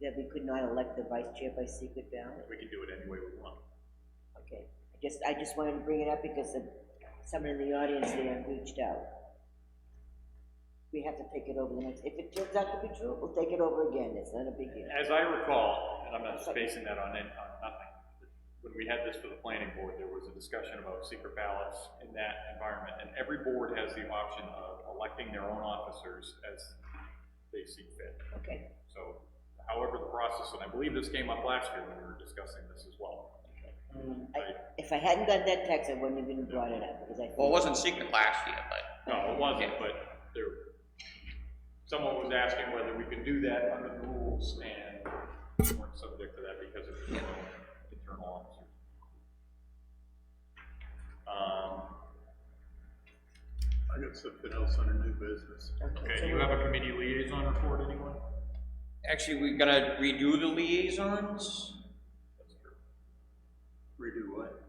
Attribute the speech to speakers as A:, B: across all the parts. A: that we could not elect the vice chair by secret ballot?
B: We can do it any way we want.
A: Okay, I just, I just wanted to bring it up because of someone in the audience there reached out. We have to take it over the next, if it turns out to be true, we'll take it over again, it's not a big deal.
B: As I recall, and I'm not just basing that on, any- on nothing, but when we had this for the planning board, there was a discussion about secret ballots in that environment, and every board has the option of electing their own officers as they see fit.
A: Okay,
B: So however the process, and I believe this came up last year when we were discussing this as well.
A: I, if I hadn't got that text, I wouldn't have even brought it up, because I.
C: Well, it wasn't secret last year, but
B: No, it wasn't, but there, someone was asking whether we could do that under the rules, and we weren't subject to that because of the internal officer. Um,
D: I got something else on a new business.
B: okay, you have a committee liaison report, anyone?
C: actually, we're gonna redo the liaisons,
D: Redo what?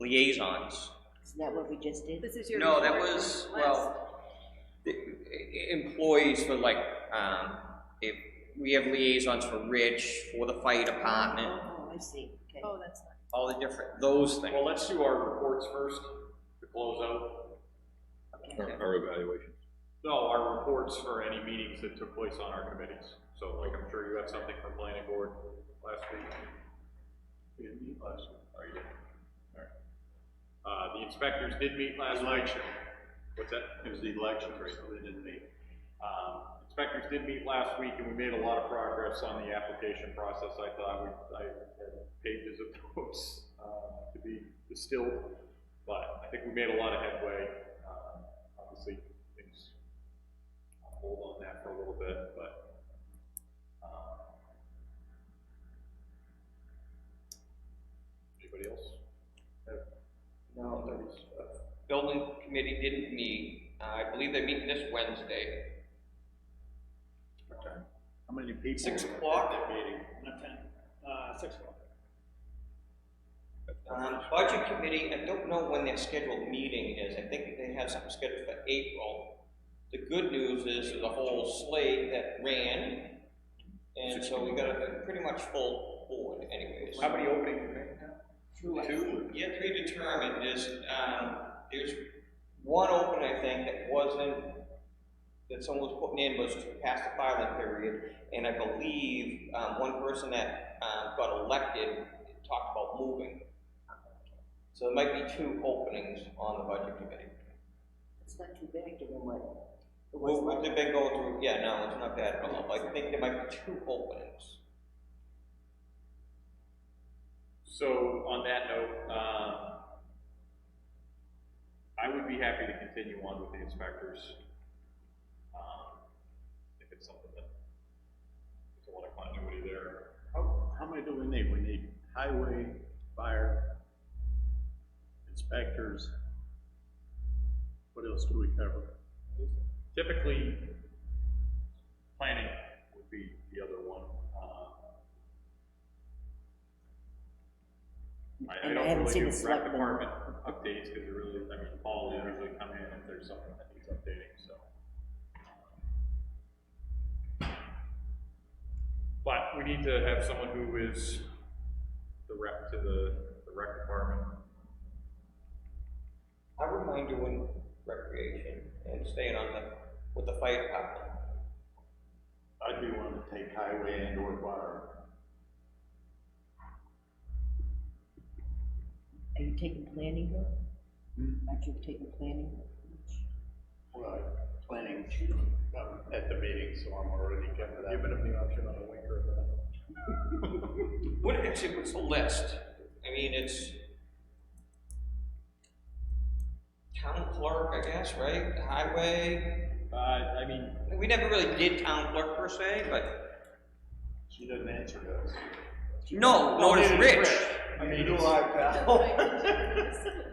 C: liaisons.
A: Isn't that what we just did?
E: This is your.
C: No, that
E: report
C: was,
E: from last-
C: well, the e- employees for like, um, if, we have liaisons for Rich, for the fire department,
A: Oh, I see, okay.
E: Oh, that's not.
C: all the different, those things.
B: Well, let's do our reports first to close out.
D: Our evaluation.
B: No, our reports for any meetings that took place on our committees. So like, I'm sure you have something from planning board last week.
D: We didn't meet last week.
B: Oh, you did? Alright. Uh, the inspectors did meet last night. What's that?
D: It was the election, so they didn't meet.
B: Um, inspectors did meet last week, and we made a lot of progress on the application process, I thought, we, I had pages of notes, uh, to be distilled, but I think we made a lot of headway, um, obviously, things, I'll hold on that for a little bit, but, um, anybody else? have
C: No,
B: thoughts?
D: uh,
C: building committee didn't meet, Uh, I believe they meet this Wednesday.
D: How many people?
C: Six o'clock?
D: Meeting.
F: Not ten, uh, six o'clock.
C: Um, budget committee, I don't know when their scheduled meeting is, I think they have something scheduled for April. The good news is, there's a whole slate that ran, and so we got a pretty much full board anyways.
B: How many openings do you have?
C: Two, yeah, three determined, there's, um, there's one open, I think, that wasn't, that someone was putting in was past the filing period, and I believe, um, one person that, um, got elected talked about moving. So there might be two openings on the budget committee.
A: It's not too bad given what. it was
C: Well,
A: like.
C: what they've been going through, yeah, no, it's not bad at all, I think there might be two openings.
B: So on that note, um, I would be happy to continue on with the inspectors. um, If it's something that, there's a lot of continuity there.
D: How, how many do we need? We need highway, fire, inspectors. What else do we cover?
B: Typically, planning would be the other one. um, I, I
A: And I
B: don't
A: haven't
B: really
A: seen
B: do
A: the
B: rec
A: selectmen.
B: department updates, cause it really, I mean, Paul will usually come in if there's something that needs updating, so. But we need to have someone who is the rep to the, the rec department.
C: I wouldn't mind doing recreation and staying on the, with the fire department.
D: I'd be willing to take highway and or fire.
A: Are you taking planning though?
C: Hmm?
A: Aren't you taking planning?
D: Well, planning um, at the meeting, so I'm already covered up. Giving them the option on a winker of that.
C: What, it's, it's a list, I mean, it's town clerk, I guess, right, highway,
B: Uh, I mean,
C: we never really did town clerk per se, but,
D: She doesn't answer those.
C: no, no, it's Rich.
D: I mean, you like
C: Oh.
D: that.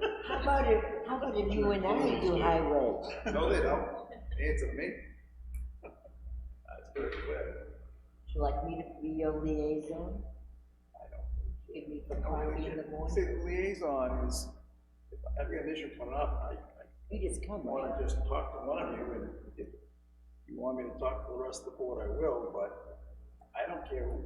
A: How about if, how about if you and I do highway?
D: No, they don't. Answer me. That's good,
A: Would you like me to be your liaison? I don't. Give me the coffee in the
D: See,
A: morning?
D: the liaison is, if I've got an issue coming up, I, I
A: You just come, right?
D: wanna just talk to one of you, and if you want me to talk to the rest of the board, I will, but I don't care